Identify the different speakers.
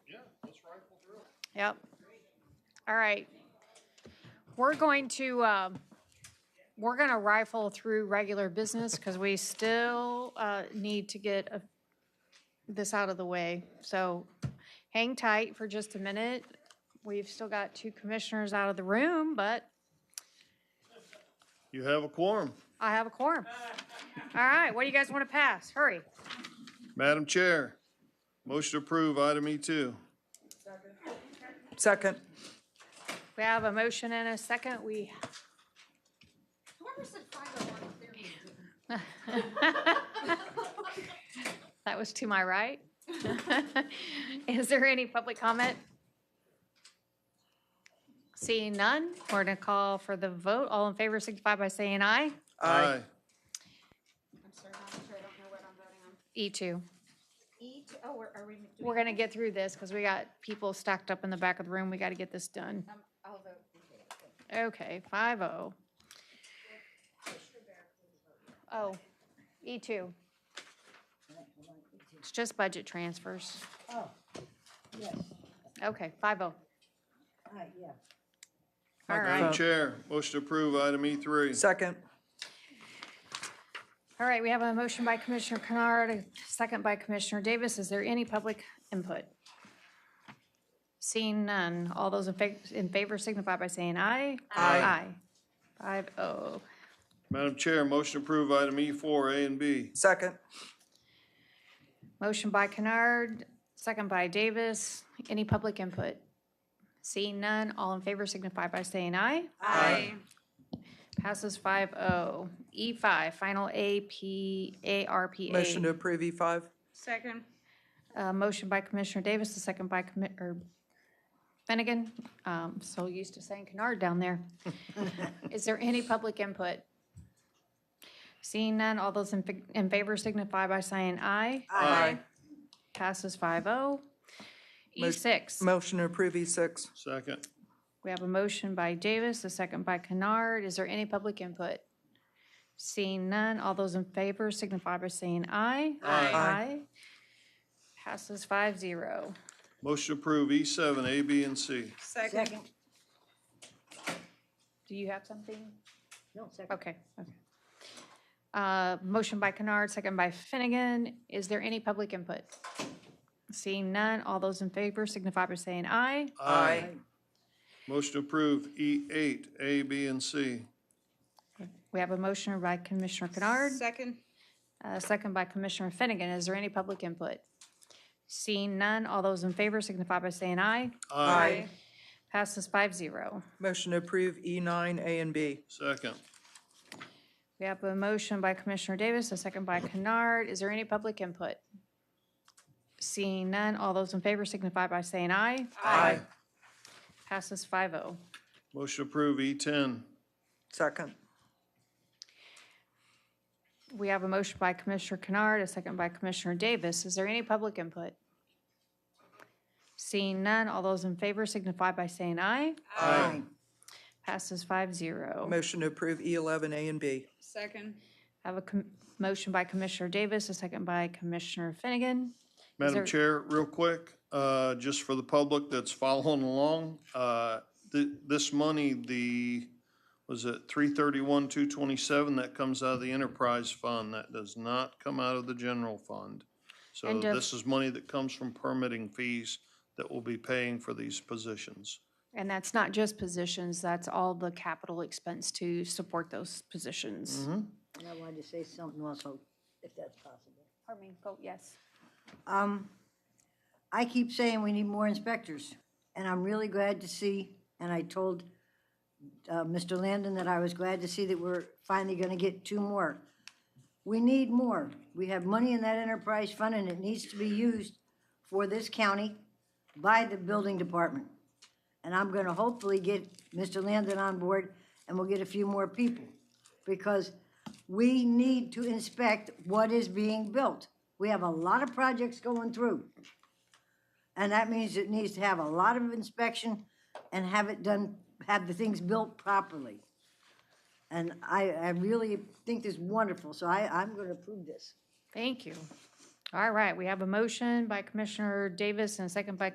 Speaker 1: Yep. All right. We're going to, um, we're going to rifle through regular business because we still uh, need to get a- this out of the way. So hang tight for just a minute. We've still got two commissioners out of the room, but
Speaker 2: You have a quorum.
Speaker 1: I have a quorum. All right, what do you guys want to pass? Hurry.
Speaker 2: Madam Chair, motion to approve item E E2.
Speaker 3: Second.
Speaker 1: We have a motion and a second. We,
Speaker 4: Whoever said five oh one clearly didn't.
Speaker 1: that was to my right. Is there any public comment? Seeing none, we're going to call for the vote. All in favor signify by saying aye.
Speaker 4: I'm sorry, Madam Chair, I don't know what I'm voting on.
Speaker 1: E2.
Speaker 4: E to, oh, we're- are we? do we-
Speaker 1: We're going to get through this because we got people stacked up in the back of the room. We got to get this done.
Speaker 4: Um, I'll vote. in favor.
Speaker 1: Okay, five oh. Oh, E two. It's just budget transfers.
Speaker 5: Oh, yes,
Speaker 1: Okay, five oh.
Speaker 5: hi, yeah.
Speaker 1: All
Speaker 2: Madam
Speaker 1: right,
Speaker 2: Chair, motion to approve item E E3.
Speaker 3: Second.
Speaker 1: all right, we have a motion by Commissioner Kennard, a second by Commissioner Davis. Is there any public input? Seeing none, all those in fa- in favor signify by saying aye.
Speaker 3: Aye.
Speaker 1: Aye. Five oh.
Speaker 2: Madam Chair, motion to approve item E4, A and B.
Speaker 3: Second.
Speaker 1: Motion by Kennard, second by Davis. Any public input? Seeing none, all in favor signify by saying aye.
Speaker 2: Aye.
Speaker 1: Passes 5-0. E5, final AP, ARPA.
Speaker 3: Motion to approve E E5.
Speaker 6: Second.
Speaker 1: Uh, Motion by Commissioner Davis, a second by Commi- or Finnegan. Um, So used to saying Kennard down there. Is there any public input? Seeing none, all those in fi- in favor signify by saying aye.
Speaker 3: Aye.
Speaker 1: Passes oh. E 5-0. E6.
Speaker 3: Motion to approve E E6.
Speaker 2: Second.
Speaker 1: We have a motion by Davis, a second by Kennard. Is there any public input? Seeing none, all those in favor signify by saying aye.
Speaker 2: Aye.
Speaker 1: Aye. Passes five zero.
Speaker 2: Motion to approve E7, A, B, and C.
Speaker 6: Second.
Speaker 5: Second,
Speaker 1: Do you have something?
Speaker 5: no, second.
Speaker 1: Okay, okay. Uh, Motion by Kennard, second by Finnegan. Is there any public input? Seeing none, all those in favor signify by saying aye.
Speaker 2: Motion to approve E8, A, B, and C.
Speaker 1: We have a motion by Commissioner Kennard.
Speaker 6: Second.
Speaker 1: Uh, Second by Commissioner Finnegan. Is there any public input? Seeing none, all those in favor signify by saying aye. Passes 5-0.
Speaker 3: Motion to approve E9, A and B.
Speaker 2: Second.
Speaker 1: We have a motion by Commissioner Davis, a second by Kennard. Is there any public input? Seeing none, all those in favor signify by saying aye.
Speaker 3: Aye.
Speaker 1: Passes oh. 5-0.
Speaker 2: Motion to approve E E10.
Speaker 3: Second.
Speaker 1: We have a motion by Commissioner Kennard, a second by Commissioner Davis. Is there any public input? Seeing none, all those in favor signify by saying aye.
Speaker 2: Aye.
Speaker 1: Passes 5-0.
Speaker 3: Motion to approve E11, A and B.
Speaker 6: Second.
Speaker 1: I have a com- motion by Commissioner Davis, a second by Commissioner Finnegan. there-
Speaker 2: Madam Chair, real quick, uh, just for the public that's following along, uh, th- this money, the, was it three thirty-one, two twenty-seven, that comes out of the enterprise fund, that does not come out of the general fund. So
Speaker 1: And, uh,
Speaker 2: this is money that comes from permitting fees that will be paying for these positions.
Speaker 1: And that's not just positions, that's all the capital expense to support those positions.
Speaker 5: And I wanted to say something also, if that's possible.
Speaker 1: Pardon me, vote yes.
Speaker 5: Um, I keep saying we need more inspectors, and I'm really glad to see, and I told uh, Mr. Landon that I was glad to see that we're finally gonna get two more. We need more. We have money in that enterprise fund, and it needs to be used for this county by the building department. And I'm gonna hopefully get Mr. Landon on board, and we'll get a few more people. Because we need to inspect what is being built. We have a lot of projects going through. And that means it needs to have a lot of inspection and have it done, have the things built properly. And I, I really think this is wonderful, so I, I'm gonna approve this.
Speaker 1: Thank you. All right, we have a motion by Commissioner Davis and a second by